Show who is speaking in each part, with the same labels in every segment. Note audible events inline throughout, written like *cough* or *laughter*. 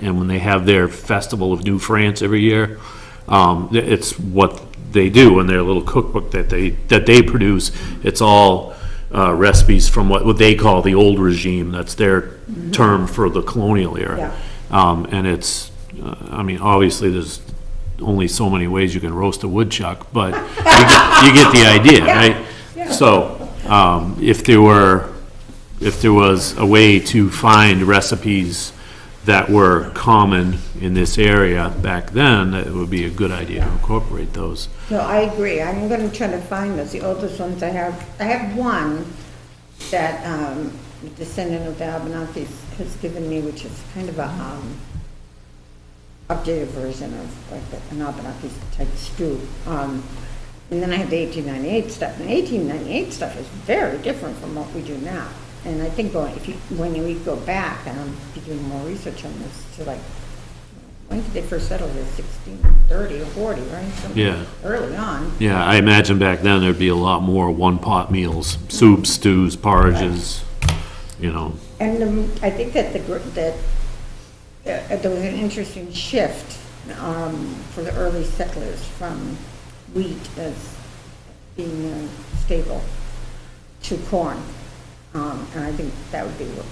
Speaker 1: and when they have their Festival of New France every year, um, th- it's what they do in their little cookbook that they, that they produce. It's all uh, recipes from what, what they call the old regime, that's their term for the colonial era. Um, And it's, uh, I mean, obviously, there's only so many ways you can roast a woodchuck, but you get- you get the idea, right? So, um, if there were, if there was a way to find recipes that were common in this area back then, it would be a good idea to incorporate those.
Speaker 2: No, I agree. I'm gonna try to find those, the oldest ones I have. I have one that, um, the descendant of the Abenakis has given me, which is kind of a, um, updated version of like an Abenakis type stew. Um, and then I have the eighteen ninety-eight stuff, and eighteen ninety-eight stuff is very different from what we do now. And I think going, if you, when you go back, and I'm doing more research on this, to like, when did they first settle this, sixteen thirty or forty, right? Something
Speaker 1: Yeah.
Speaker 2: Early on.
Speaker 1: Yeah, I imagine back then there'd be a lot more one-pot meals, soups, stews, porridges, you know.
Speaker 2: And um, I think that the, gr- that, uh, there was an interesting shift um, for the early settlers from wheat as being a staple to corn. Um, And I think that would be what-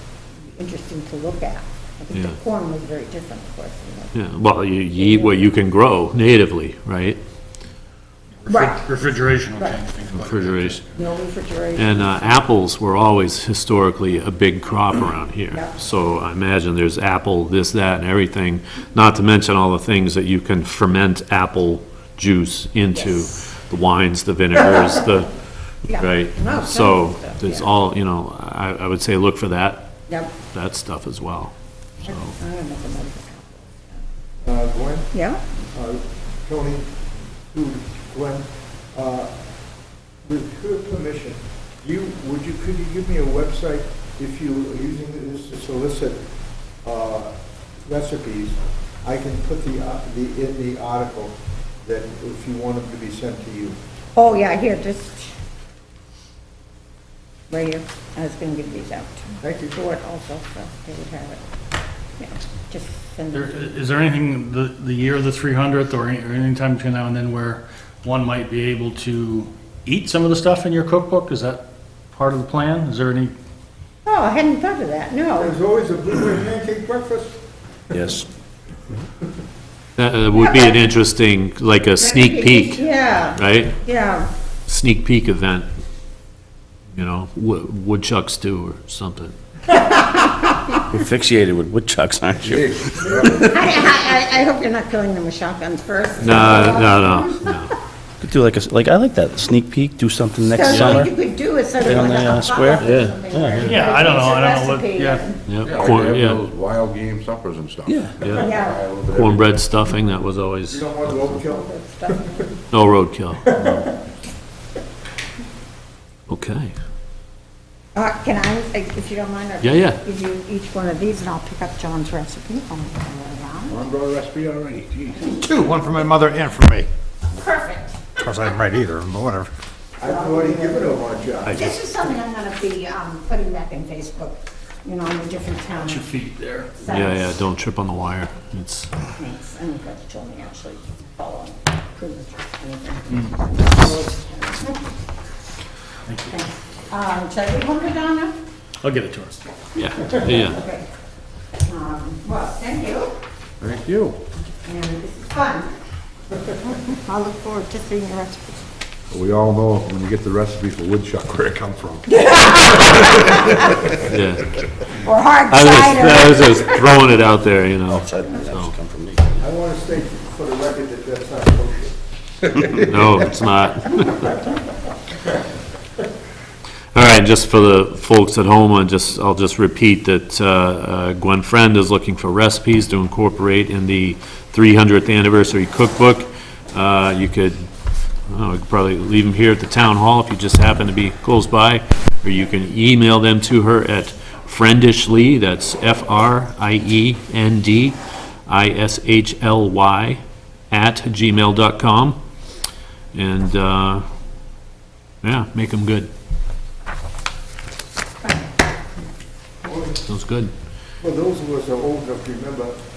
Speaker 2: interesting to look at. I think
Speaker 1: Yeah.
Speaker 2: the corn was very different, of course. you know.
Speaker 1: Yeah, well, you you eat what you can grow natively, right?
Speaker 2: Right.
Speaker 3: Refrigeration will
Speaker 2: Right.
Speaker 3: change things. quite a bit.
Speaker 1: Refrigeration.
Speaker 2: No refrigeration.
Speaker 1: And uh, apples were always historically a big crop around here.
Speaker 2: Yeah.
Speaker 1: So I imagine there's apple, this, that, and everything, not to mention all the things that you can ferment apple juice into.
Speaker 2: Yes.
Speaker 1: The wines, the vinegars, the,
Speaker 2: *laughs* Yeah. No,
Speaker 1: right?
Speaker 2: tons
Speaker 1: So
Speaker 2: of stuff,
Speaker 1: there's
Speaker 2: yeah.
Speaker 1: all, you know, I, I would say look for that,
Speaker 2: Yep.
Speaker 1: that stuff as well.
Speaker 2: I'm gonna make a note of
Speaker 4: Uh, Gwen,
Speaker 2: that. Yeah?
Speaker 4: uh, Tony, who- Gwen, uh, with her permission, you, would you, could you give me a website if you are using this to solicit uh, recipes? I can put the, uh, the, in the article that if you want them to be sent to you.
Speaker 2: Oh, yeah, here, just, right here, I was gonna give these out
Speaker 4: Thank
Speaker 2: to
Speaker 4: you.
Speaker 2: George also, so they would have it. Yeah, just send
Speaker 3: There-
Speaker 2: them.
Speaker 3: Is there anything, the, the year of the 300th or any- or any time between now and then where one might be able to eat some of the stuff in your cookbook? Is that part of the plan? Is there any?
Speaker 2: Oh, I hadn't thought of that, no.
Speaker 4: There's always a blueberry pancake breakfast.
Speaker 1: Yes. That uh, would be an interesting, like a sneak peek,
Speaker 2: Yeah,
Speaker 1: right?
Speaker 2: yeah,
Speaker 1: sneak peek event, you know, wo- woodchuck stew or something.
Speaker 5: You're Asphyxiated with woodchucks, aren't you?
Speaker 2: I, I, I- I hope you're not killing them with shotguns first.
Speaker 1: No, no, no, no.
Speaker 5: Could do like a, like, I like that, sneak peek, do something next
Speaker 2: So what
Speaker 5: summer.
Speaker 2: you could do is sort of
Speaker 5: on
Speaker 2: like
Speaker 5: the,
Speaker 2: a
Speaker 5: uh, square?
Speaker 2: pop-up or something where you
Speaker 3: Yeah, I don't know, I don't know
Speaker 2: produce a
Speaker 3: what,
Speaker 2: recipe
Speaker 3: yeah.
Speaker 1: Yeah,
Speaker 6: Yeah, like
Speaker 1: corn,
Speaker 6: they have
Speaker 1: yeah,
Speaker 6: those wild game suppers and stuff.
Speaker 5: Yeah,
Speaker 1: yeah.
Speaker 2: and- Yeah.
Speaker 1: cornbread stuffing, that was always,
Speaker 4: You don't want roadkill?
Speaker 2: that stuff.
Speaker 1: no roadkill. Okay,
Speaker 2: Uh, can I, if you don't mind, I'll
Speaker 1: Yeah, yeah.
Speaker 2: give you each one of these and I'll pick up John's recipe. I'll go around.
Speaker 6: Corn bread recipe already, geez.
Speaker 7: Two, one for my mother and for me.
Speaker 2: Perfect.
Speaker 7: Of course, I didn't write either, but whatever.
Speaker 4: I've already given her one, John.
Speaker 2: This is something I'm gonna be um, putting back in Facebook, you know, in the different towns.
Speaker 3: Two feet there.
Speaker 1: yeah, yeah, don't trip on the wire, it's,
Speaker 2: Thanks, I'm glad you told me actually, follow pretty much anything.
Speaker 1: Mm.
Speaker 2: Thanks. Um, should I leave one for Donna?
Speaker 3: I'll give it to her.
Speaker 1: yeah, yeah.
Speaker 2: Okay. Um, Well, thank you,
Speaker 6: Thank you.
Speaker 2: and this is fun. *laughs* I look forward to seeing your recipes.
Speaker 6: We all know when you get the recipe for woodchuck, where it come from.
Speaker 1: yeah.
Speaker 2: Or hard
Speaker 1: I was, I
Speaker 2: cider.
Speaker 1: was just throwing it out there, you know,
Speaker 4: I want to state for the record that that's not kosher.
Speaker 1: no, it's not. *laughs* All right, just for the folks at home, I just, I'll just repeat that uh, uh, Gwen Friend is looking for recipes to incorporate in the 300th anniversary cookbook. Uh, You could, I don't know, you could probably leave them here at the town hall if you just happen to be close by, or you can email them to her at friendishly, that's E F-R-I-E-N-D-I-S-H-L-Y, at gmail.com. And, uh, yeah, make them good. Sounds good.
Speaker 4: For those of us who are old enough to remember,